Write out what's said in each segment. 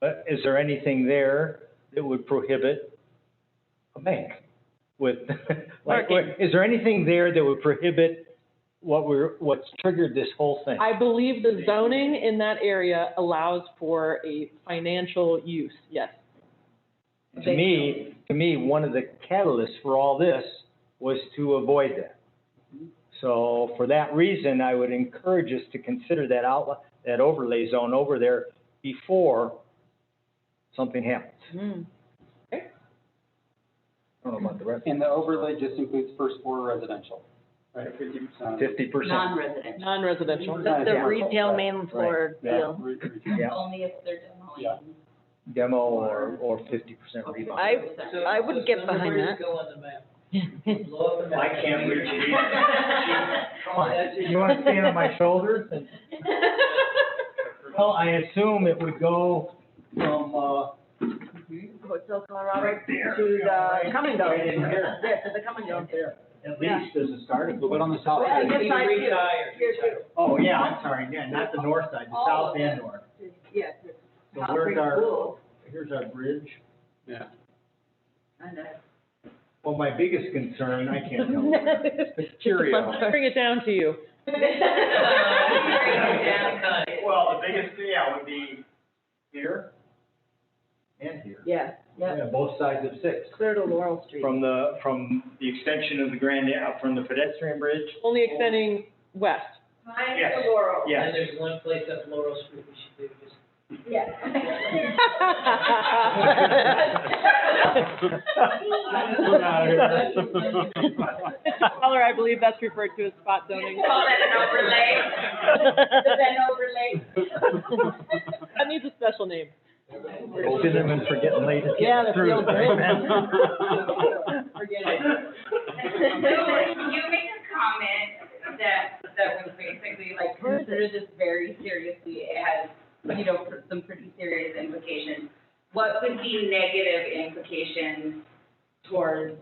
But is there anything there that would prohibit a bank with, like, Parking. is there anything there that would prohibit what we're, what's triggered this whole thing? I believe the zoning in that area allows for a financial use, yes. To me, to me, one of the catalysts for all this was to avoid that. So for that reason, I would encourage us to consider that outlet, that overlay zone over there before something happens. Hmm. I don't know about the rest, And the overlay just includes first floor residential, right, fifty percent. fifty percent. Non-residential. Non-residential. That's The, the Right. retail main floor Right. deal. Yeah. Only if they're demoing. Yeah. Demo or, or fifty percent rebuy. I- I would get behind that. I can't reach you. Come on, you wanna stand on my shoulders? Well, I assume it would go from, uh, Mm-hmm. Hotel Colorado to the come and go. This is the come and go. At Yeah. least as a starting. But what on the south Well, I side? guess I- Oh, yeah, I'm sorry, yeah, not the north side, the Oh. south and north. Yes. So where's our, here's our bridge. Yeah. Well, my biggest concern, I can't tell. It's Cheerio. Bring it down to you. Well, the biggest, yeah, would be here and here. Yes, yeah, Yeah, both sides of six. clear to Laurel Street. from the, from the extension of the Grand, Ave- from the pedestrian bridge? Only extending west. Yes. Laurel. Yes. there's one place up Laurel Street we should do this. Yes. We're out of here. Caller, I believe that's referred to as spot zoning. Call that an overlay, is That that an overlay? needs a special name. Cinnamon for getting late. at Yeah, that through feels the good. man. You made a comment that, that was basically like, consider this very seriously, it has, you know, pr- some pretty serious implications. What would be negative implications towards,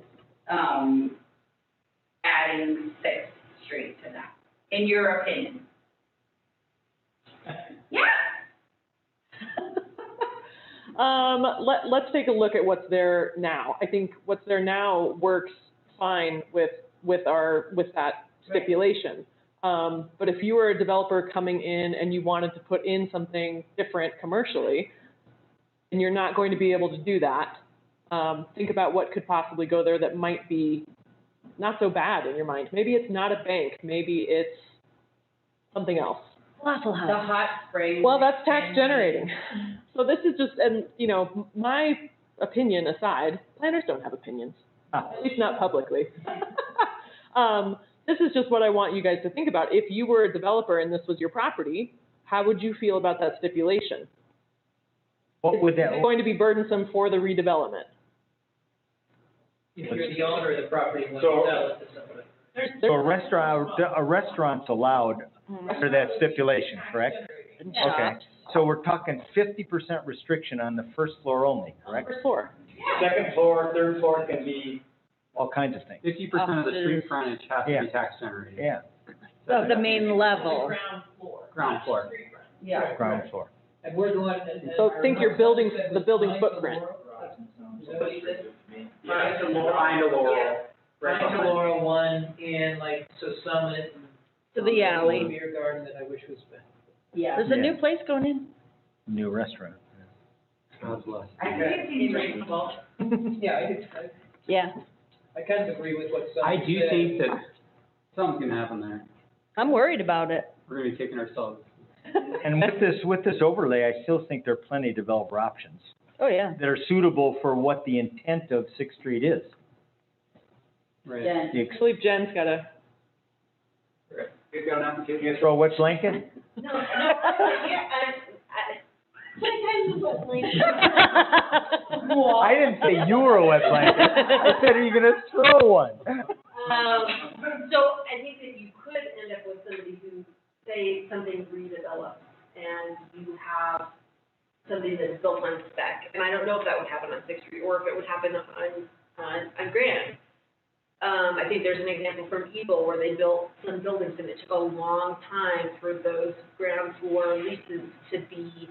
um, adding Sixth Street to that, in your opinion? Yeah, Um, let, let's take a look at what's there now. I think what's there now works fine with, with our, with that stipulation. Um, but if you were a developer coming in and you wanted to put in something different commercially, and you're not going to be able to do that, um, think about what could possibly go there that might be not so bad in your mind. Maybe it's not a bank, maybe it's something else. Waffle the hot springs. Well, that's tax generating. So this is just, and, you know, my opinion aside, planners don't have opinions, Ah. at least not publicly. Um, this is just what I want you guys to think about. If you were a developer and this was your property, how would you feel about that stipulation? What would that, It's going to be burdensome for the redevelopment. If you're the owner of the property, when So- you sell it to somebody. so a restaurant, a restaurant's allowed under that stipulation, correct? Okay, so we're talking fifty percent restriction on the first floor only, correct? Number four. Second floor, third floor can be. All kinds of things, Fifty percent of the street frontage has to Yeah. be tax generated. yeah, Of the main level. Ground floor. Ground floor. Yeah. ground floor. And we're the one that. So think your building- the building footprint. Somebody said, Find a Laurel. right to Laurel one and like, so Summit. and To the alley. Little Beer garden that I wish was back. Yeah. There's a new place going in. New restaurant. God bless. I think it seems reasonable. Yeah, I do, I, Yeah, I kind of agree with what I Summit said. do think that something's gonna happen there. I'm worried about it. We're gonna be kicking ourselves. And with this, with this overlay, I still think there are plenty of developer options Oh, yeah. that are suitable for what the intent of Sixth Street is. Right. Then, You I believe Jen's got a, Good going out and kicking throw what's Lincoln? no, no, yeah, I, I, sometimes what's I didn't say you were a wet blanket. I said, are you gonna throw one? Um, so I think that you could end up with somebody who, say, something's redeveloped and you have something that's built on spec. And I don't know if that would happen on Sixth Street or if it would happen on, on, on Grand. Um, I think there's an example from Eagle where they built some buildings and it took a long time for those ground floor leases to be